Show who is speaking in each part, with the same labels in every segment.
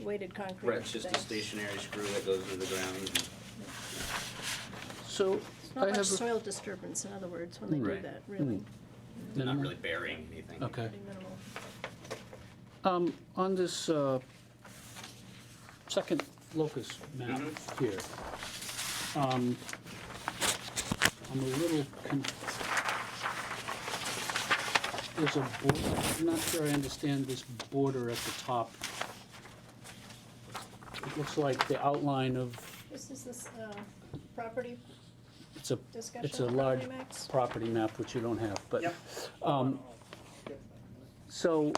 Speaker 1: weighted concrete.
Speaker 2: Right, it's just a
Speaker 1: thing.
Speaker 2: stationary screw that goes into the ground. and-
Speaker 3: So
Speaker 1: It's
Speaker 3: I
Speaker 1: Not much
Speaker 3: have, a- Hmm.
Speaker 1: soil disturbance, in other words, when they do
Speaker 2: Right.
Speaker 1: that, really,
Speaker 2: Not
Speaker 3: Minimal.
Speaker 2: really burying anything.
Speaker 3: Mm-hmm. okay.
Speaker 1: pretty minimal.
Speaker 3: Um, on this, uh, second locus map
Speaker 2: Mm-hmm.
Speaker 3: here, um, I'm a little con- there's a, bor- I'm not sure I understand this border at the top. It looks like the outline of,
Speaker 1: This is this, uh, property
Speaker 3: it's a,
Speaker 1: discussion.
Speaker 3: it's a large
Speaker 1: property max?
Speaker 3: property map, which you don't have, but.
Speaker 4: Yep.
Speaker 3: Um, So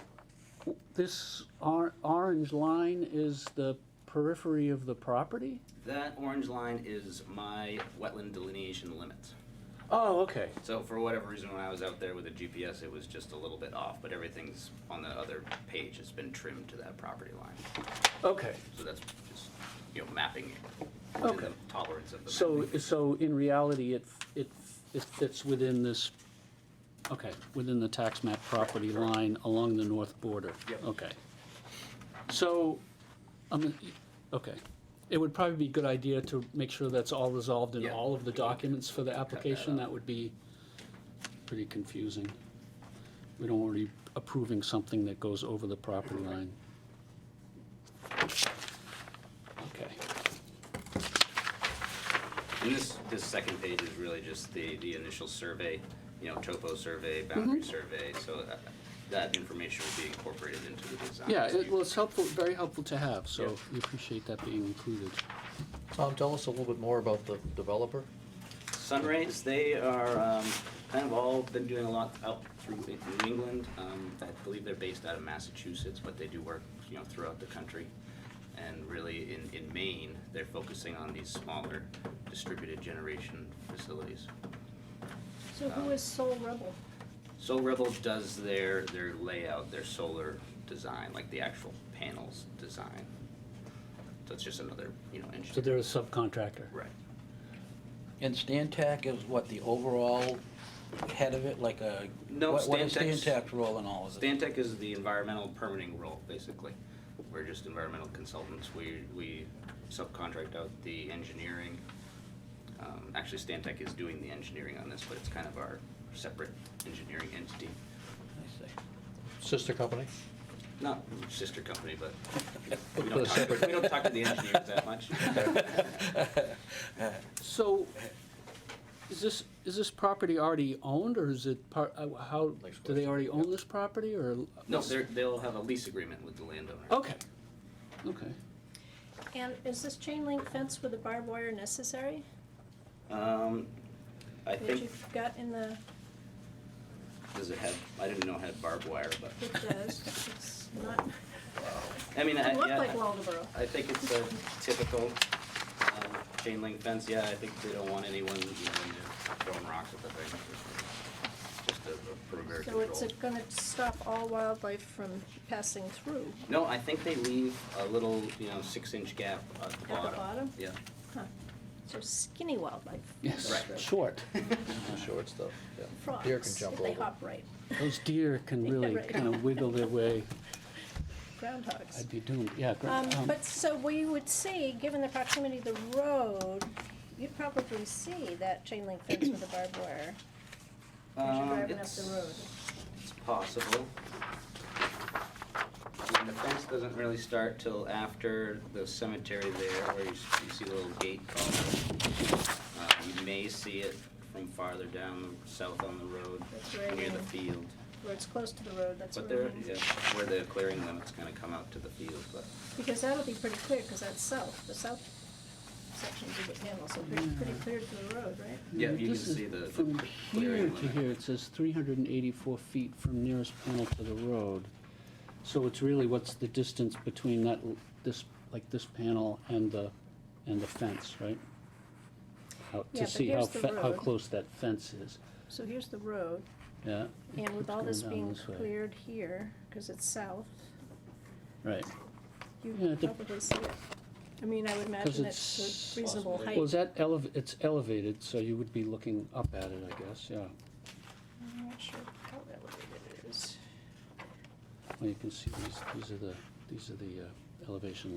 Speaker 3: w- this or- orange line is the periphery of the property?
Speaker 2: That orange line is my wetland delineation limit.
Speaker 3: Oh, okay.
Speaker 2: So for whatever reason, when I was out there with the GPS, it was just a little bit off, but everything's on the other page. It's been trimmed to that property line.
Speaker 3: Okay.
Speaker 2: So that's just, you know, mapping it to the
Speaker 3: Okay.
Speaker 2: tolerance of the.
Speaker 3: So,
Speaker 2: mapping.
Speaker 3: so in reality, it, f- it, f- it fits within this, okay, within the tax map property line along the north border?
Speaker 2: Yep.
Speaker 3: Okay. So, I mean, okay. It would probably be a good idea to make sure that's all resolved in
Speaker 2: Yeah.
Speaker 3: all of the documents for the application.
Speaker 2: out.
Speaker 3: That would be pretty confusing. We don't want to be approving something that goes over the property line. Okay.
Speaker 2: And this, this second page is really just the, the initial survey, you know, topo survey, boundary
Speaker 3: Mm-hmm.
Speaker 2: survey, so that, that information will be incorporated into the design.
Speaker 3: Yeah,
Speaker 2: So
Speaker 3: it
Speaker 2: you-
Speaker 3: was helpful, very helpful to have,
Speaker 2: Yeah.
Speaker 3: so we appreciate that being included.
Speaker 5: Tom, tell us a little bit more about the developer.
Speaker 2: Sunrays, they are um, kind of all been doing a lot out through in- New England. Um, I believe they're based out of Massachusetts, but they do work, you know, throughout the country. And really, in, in Maine, they're focusing on these smaller distributed generation facilities.
Speaker 1: So who is Soul Rebel?
Speaker 2: Solar Rebel does their, their layout, their solar design, like the actual panels design. So it's just another, you know, engineer.
Speaker 3: So they're a subcontractor.
Speaker 2: Right.
Speaker 5: And StanTech is what, the overall head of it, like a?
Speaker 2: No,
Speaker 5: what- What is
Speaker 2: Stantec's-
Speaker 5: StanTech's role in all of this?
Speaker 2: Stantec is the environmental permitting role, basically. We're just environmental consultants. We, we subcontract out the engineering. Um, Actually, Stantec is doing the engineering on this, but it's kind of our separate engineering entity.
Speaker 5: I see.
Speaker 6: Sister company?
Speaker 2: Not sister company, but we don't talk, we don't talk to the engineers that much.
Speaker 3: So, is this, is this property already owned, or is it part, uh, how,
Speaker 5: Next
Speaker 3: do they
Speaker 5: question,
Speaker 3: already own this property, or?
Speaker 2: No, they're, they'll have a lease agreement with the landowner.
Speaker 3: Okay, okay.
Speaker 1: And is this chain link fence with a barbed wire necessary
Speaker 2: Um, I
Speaker 1: that
Speaker 2: think,
Speaker 1: you've got in the,
Speaker 2: does it have, I didn't know it had barbed wire, but,
Speaker 1: it does, it's not,
Speaker 2: I mean, I,
Speaker 1: it
Speaker 2: Uh, yeah.
Speaker 1: looked like Waldeboro.
Speaker 2: I think it's a typical um, chain link fence, yeah, I think they don't want anyone, you know, in there throwing rocks at the thing. Just a- a perimeter
Speaker 1: So it's
Speaker 2: control.
Speaker 1: gonna stop all wildlife from passing through.
Speaker 2: No, I think they leave a little, you know, six-inch gap at the
Speaker 1: the
Speaker 2: bottom.
Speaker 1: bottom?
Speaker 2: Yeah.
Speaker 1: Huh. So skinny wildlife,
Speaker 3: Yes,
Speaker 2: Right.
Speaker 3: short.
Speaker 5: Some Short stuff, yeah.
Speaker 1: frogs,
Speaker 5: Deer can
Speaker 1: if
Speaker 5: jump
Speaker 1: they
Speaker 5: over.
Speaker 1: hop right,
Speaker 3: Those deer can really
Speaker 1: Right.
Speaker 3: kind of wiggle their way.
Speaker 1: groundhogs.
Speaker 3: I'd be doomed, yeah. gr-
Speaker 1: Um,
Speaker 3: um,
Speaker 1: but so we would see, given the proximity of the road, you'd probably see that chain link fence with a barbed wire. As you're
Speaker 2: Um,
Speaker 1: driving up
Speaker 2: it's-
Speaker 1: the road.
Speaker 2: It's possible. And the fence doesn't really start till after the cemetery there, where you, s- you see the little gate called. Uh, you may see it from farther down, south on the road,
Speaker 1: That's right,
Speaker 2: near the
Speaker 1: yeah.
Speaker 2: field.
Speaker 1: Where it's close to the road, that's
Speaker 2: But
Speaker 1: where
Speaker 2: there,
Speaker 1: it is.
Speaker 2: yeah, where the clearing limits kind of come out to the field, but
Speaker 1: Because that'll be pretty clear, because that's south, the south section of the panel, so pretty, pretty clear to the road, right?
Speaker 2: yeah, you can
Speaker 3: this is-
Speaker 2: see the the
Speaker 3: From here
Speaker 2: clearing
Speaker 3: to
Speaker 2: limit.
Speaker 3: here, it says 384 feet from nearest panel to the road. So it's really what's the distance between that, l- this, like this panel and the, and the fence, right? How-
Speaker 1: Yeah,
Speaker 3: To
Speaker 1: but
Speaker 3: see how,
Speaker 1: here's the
Speaker 3: fe- how
Speaker 1: road.
Speaker 3: close that fence is,
Speaker 1: So here's the road,
Speaker 3: yeah?
Speaker 1: and with all
Speaker 3: Going
Speaker 1: this
Speaker 3: down
Speaker 1: being
Speaker 3: this way.
Speaker 1: cleared here, because it's south,
Speaker 3: Right.
Speaker 1: you
Speaker 3: Yeah,
Speaker 1: can
Speaker 3: the-
Speaker 1: probably see it. I mean, I would imagine it's
Speaker 3: it's-
Speaker 1: a reasonable
Speaker 5: Possibly.
Speaker 1: height.
Speaker 3: Well, is that elev, it's elevated, so you would be looking up at it, I guess, yeah.
Speaker 1: I'm not sure how elevated it is.
Speaker 3: Well, you can see these, these are the, these are the uh, elevation